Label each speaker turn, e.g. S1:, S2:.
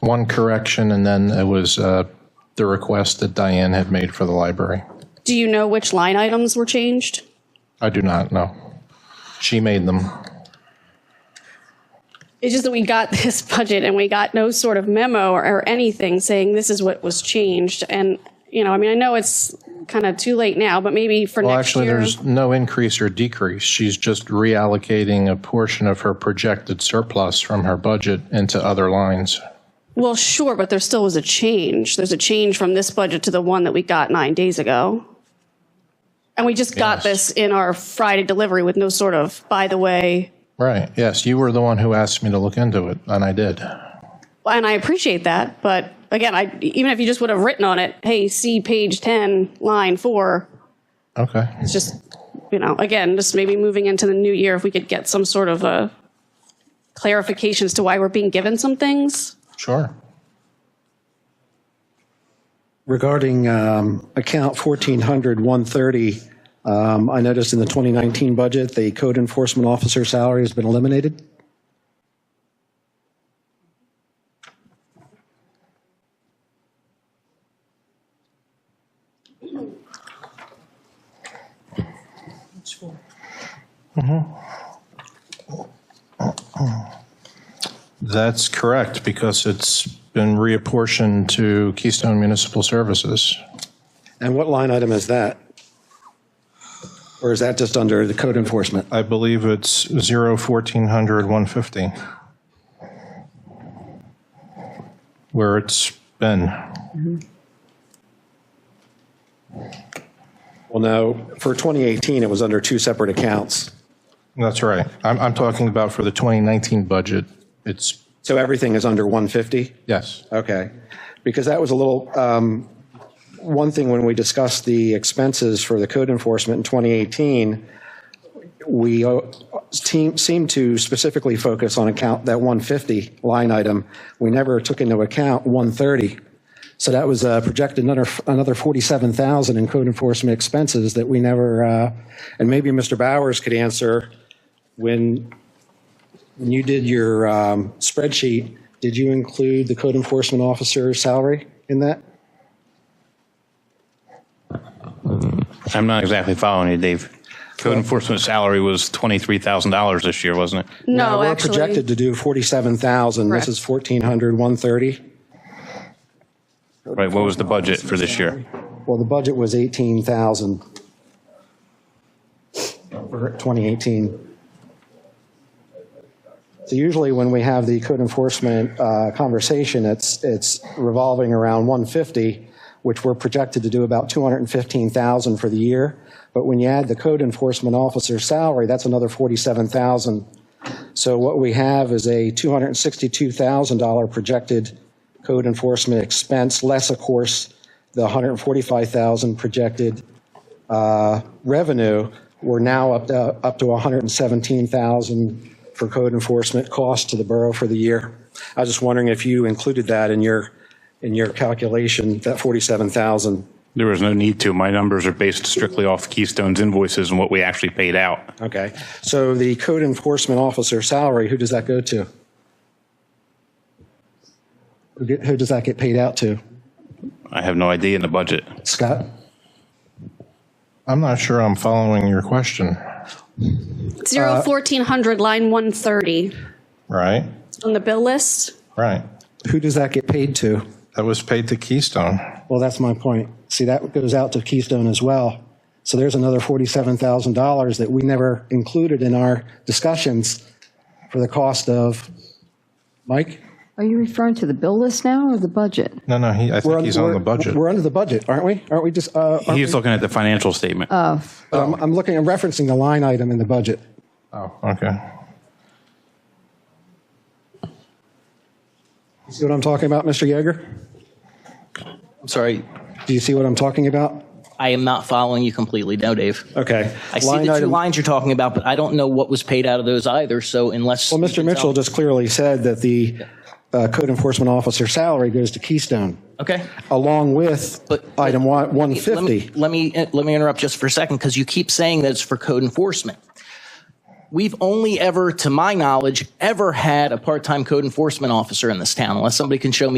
S1: one correction, and then it was uh, the request that Diane had made for the library.
S2: Do you know which line items were changed?
S1: I do not know. She made them.
S2: It's just that we got this budget and we got no sort of memo or, or anything saying this is what was changed. And, you know, I mean, I know it's kind of too late now, but maybe for
S1: Well,
S2: next
S1: actually,
S2: year.
S1: there's no increase or decrease. She's just reallocating a portion of her projected surplus from her budget into other lines.
S2: Well, sure, but there still was a change. There's a change from this budget to the one that we got nine days ago. And we just got
S1: Yes.
S2: this in our Friday delivery with no sort of, by the way,
S1: Right, yes, you were the one who asked me to look into it, and I did.
S2: and I appreciate that, but again, I, even if you just would have written on it, hey, see page 10, line four,
S1: Okay,
S2: it's just, you know, again, just maybe moving into the new year, if we could get some sort of a clarification as to why we're being given some things.
S1: sure.
S3: Regarding um, account 1400 130, um, I noticed in the 2019 budget, the code enforcement officer salary has been eliminated.
S1: That's correct, because it's been reapportioned to Keystone Municipal Services.
S3: And what line item is that? Or is that just under the code enforcement?
S1: I believe it's 01400-150, where it's been.
S3: Well, no, for 2018, it was under two separate accounts.
S1: That's right. I'm, I'm talking about for the 2019 budget. It's,
S3: So everything is under 150?
S1: yes,
S3: Okay, because that was a little, um, one thing when we discussed the expenses for the code enforcement in 2018, we uh, team- seemed to specifically focus on account, that 150 line item. We never took into account 130. So that was uh, projected another, another 47,000 in code enforcement expenses that we never, uh, and maybe Mr. Bowers could answer when when you did your um, spreadsheet, did you include the code enforcement officer's salary in that?
S4: I'm not exactly following you, Dave. Code enforcement salary was twenty-three thousand dollars this year, wasn't it?
S2: No,
S3: We're
S2: actually.
S3: projected to do 47,000. This
S2: Correct.
S3: is 1,400, 130.
S4: Right, what was the budget for this year?
S3: Well, the budget was 18,000 for 2018. So usually when we have the code enforcement uh, conversation, it's, it's revolving around 150, which we're projected to do about 215,000 for the year. But when you add the code enforcement officer salary, that's another 47,000. So what we have is a $262,000 projected code enforcement expense, less, of course, the 145,000 projected uh, revenue. We're now up to, up to 117,000 for code enforcement costs to the borough for the year. I was just wondering if you included that in your, in your calculation, that 47,000.
S4: There was no need to. My numbers are based strictly off Keystone's invoices and what we actually paid out.
S3: Okay. So the code enforcement officer salary, who does that go to? Who get- Who does that get paid out to?
S4: I have no idea in the budget.
S3: Scott?
S1: I'm not sure I'm following your question,
S3: uh,
S2: Zero fourteen hundred, line one thirty
S1: right?
S2: on the bill list.
S1: Right.
S3: Who does that get paid to?
S1: That was paid to Keystone.
S3: Well, that's my point. See, that goes out to Keystone as well. So there's another $47,000 that we never included in our discussions for the cost of, Mike?
S5: Are you referring to the bill list now or the budget?
S1: No, no, he, I
S3: We're
S1: think he's on the budget.
S3: We're under the budget, aren't we? Aren't we just, uh, aren't
S4: He's
S3: we-
S4: looking at the financial statement.
S3: but I'm, I'm looking, I'm referencing the line item in the budget.
S1: Oh, okay.
S3: You See what I'm talking about, Mr. Yeager?
S6: I'm sorry,
S3: Do you see what I'm talking about?
S6: I am not following you completely now, Dave.
S3: Okay.
S6: I see
S3: Line
S6: the two
S3: item-
S6: lines you're talking about, but I don't know what was paid out of those either. So unless
S3: Well, Mr. Mitchell
S6: just
S3: just clearly said that the uh, code enforcement officer salary goes to Keystone,
S6: okay.
S3: along with
S6: But-
S3: item one-
S6: Let me-
S3: 150.
S6: Let me, let me interrupt just for a second because you keep saying that it's for code enforcement. We've only ever, to my knowledge, ever had a part-time code enforcement officer in this town, unless somebody can show me.